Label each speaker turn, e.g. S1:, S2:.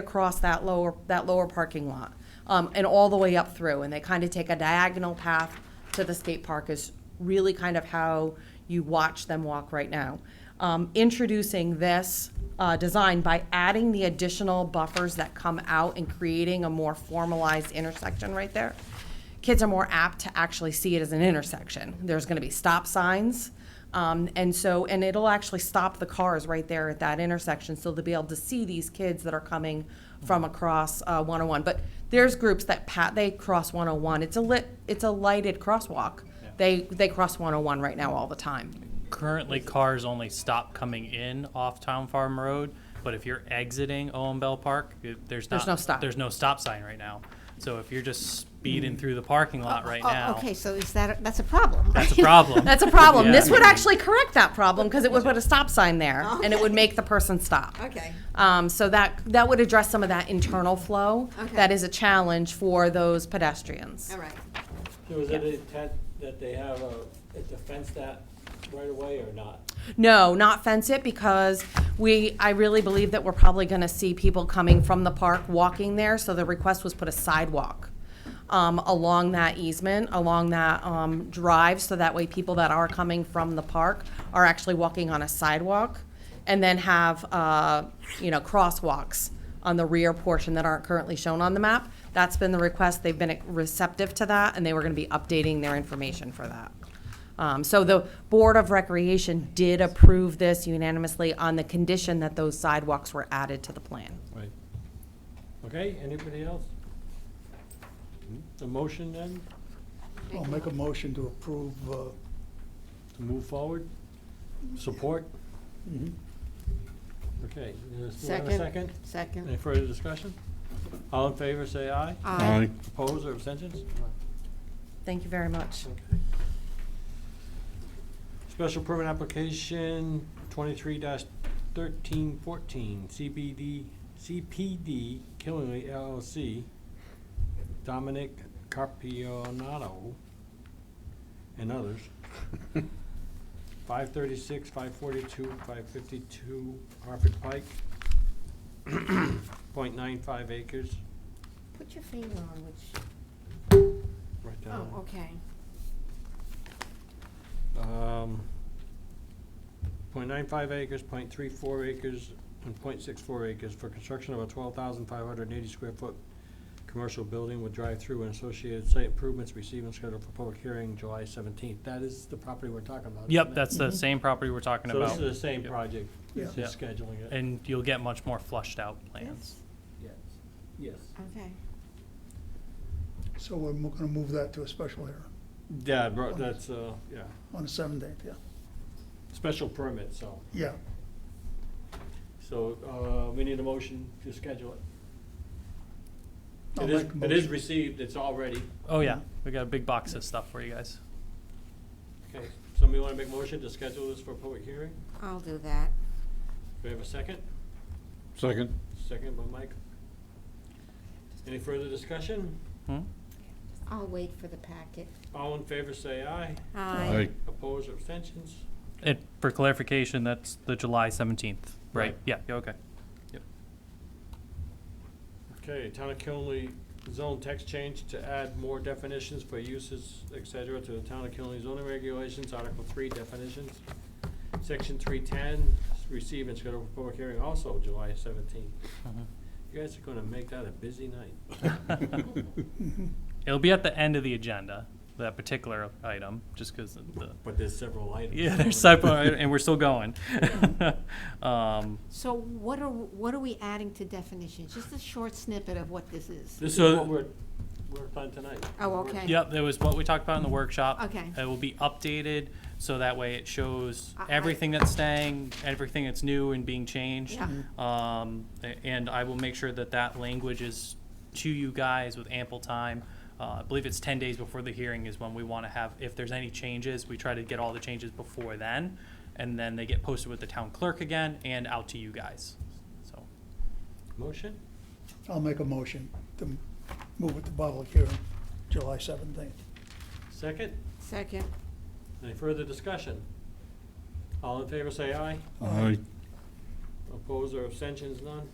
S1: across that lower, that lower parking lot, um, and all the way up through, and they kind of take a diagonal path to the skate park is really kind of how you watch them walk right now. Um, introducing this, uh, design by adding the additional buffers that come out and creating a more formalized intersection right there, kids are more apt to actually see it as an intersection. There's going to be stop signs. Um, and so, and it'll actually stop the cars right there at that intersection so they'll be able to see these kids that are coming from across uh, 101. But there's groups that pat, they cross 101. It's a lit, it's a lighted crosswalk. They, they cross 101 right now all the time.
S2: Currently, cars only stop coming in off Town Farm Road, but if you're exiting Owen Bell Park, it- there's not.
S1: no stop.
S2: There's no stop sign right now. So if you're just speeding through the parking lot right
S3: Oh,
S2: now,
S3: Okay, so is that, that's a problem.
S2: that's a problem.
S1: That's a problem.
S2: Yeah.
S1: This would actually correct that problem because it would put a stop sign there and it would make the person stop.
S3: Okay.
S1: Um, so that that would address some of that internal flow
S3: Okay.
S1: that is a challenge for those pedestrians.
S3: All right.
S4: So is it intent that they have a, a defense that right away or not?
S1: No, not fence it because we I really believe that we're probably going to see people coming from the park walking there. So the request was put a sidewalk um, along that easement, along that um, drive, so that way people that are coming from the park are actually walking on a sidewalk, and then have uh, you know crosswalks on the rear portion that aren't currently shown on the map. That's been the request. They've been receptive to that, and they were going to be updating their information for that. Um, So the Board of Recreation did approve this unanimously on the condition that those sidewalks were added to the plan.
S4: Right. Okay, anybody else? The motion then,
S5: I'll make a motion to approve, uh,
S4: to move forward, support? Mm-hmm. Okay, does anyone have a second? Any
S3: Second.
S4: further discussion? All in favor, say aye.
S3: Aye.
S4: Opposed or abstentions?
S1: Thank you very much.
S4: Special permit application twenty-three thirteen fourteen, CBD, CPD Killingly LLC, Dominic Carpionato and others. Five thirty-six, five forty-two, five fifty-two Harford Pike, point nine five acres,
S3: Put your finger on which,
S4: right down.
S3: oh, okay.
S4: um, 0.95 acres, 0.34 acres, and 0.64 acres for construction of a 12,580 square foot commercial building with drive-through and associated site improvements receiving scheduled for public hearing July 17th. That is the property we're talking about.
S2: Yep,
S4: isn't it?
S2: that's the same property we're talking
S4: So
S2: about.
S4: this is the same
S2: Yep.
S4: project, it's
S2: Yeah.
S4: just scheduling it.
S2: And you'll get much more flushed out plans.
S4: Yes. Yes.
S3: Okay.
S5: so we're mo- gonna move that to a special hearing
S4: Yeah, bro- that's, uh, yeah,
S5: on the seventeenth, yeah.
S4: special permit, so,
S5: Yeah,
S4: so uh, we need a motion to schedule it.
S5: I'll
S4: It is,
S5: make a
S4: it is
S5: motion.
S4: received, it's all ready.
S2: Oh, yeah, we got a big box of stuff for you guys.
S4: Okay, somebody want to make a motion to schedule this for a public hearing?
S3: I'll do that.
S4: Do we have a second?
S6: Second.
S4: Second by Mike. Any further discussion?
S2: Hmm?
S3: I'll wait for the packet.
S4: All in favor, say aye.
S3: Aye.
S4: Opposed or abstentions?
S2: And for clarification, that's the July 17th, right?
S4: Right.
S2: Yeah, yeah, okay.
S4: Okay, Town of Killenly zone text change to add more definitions for uses, et cetera, to the Town of Killenly zoning regulations, Article three definitions. Section three ten, receive and schedule for public hearing also July seventeenth.
S2: Mm-hmm.
S4: You guys are gonna make that a busy night.
S2: It'll be at the end of the agenda, that particular item, just because of the,
S4: But there's several items.
S2: yeah, there's several, and we're still going. Um,
S3: So what are, what are we adding to definitions? Just a short snippet of what this is.
S4: This is
S2: So-
S4: what we're, we're on tonight.
S3: Oh, okay.
S2: Yep, it was what we talked about in the workshop.
S3: Okay.
S2: It will be updated, so that way it shows
S3: I- I-
S2: everything that's staying, everything that's new and being changed.
S3: Yeah. Mm-hmm.
S2: Um, a- and I will make sure that that language is to you guys with ample time. Uh, I believe it's ten days before the hearing is when we wanna have, if there's any changes, we try to get all the changes before then. And then they get posted with the town clerk again and out to you guys, so.
S4: Motion?
S5: I'll make a motion to m- move it to public hearing, July seventeenth.
S4: Second?
S3: Second.
S4: Any further discussion? All in favor, say aye.
S6: Aye.
S4: Opposed or abstentions, none?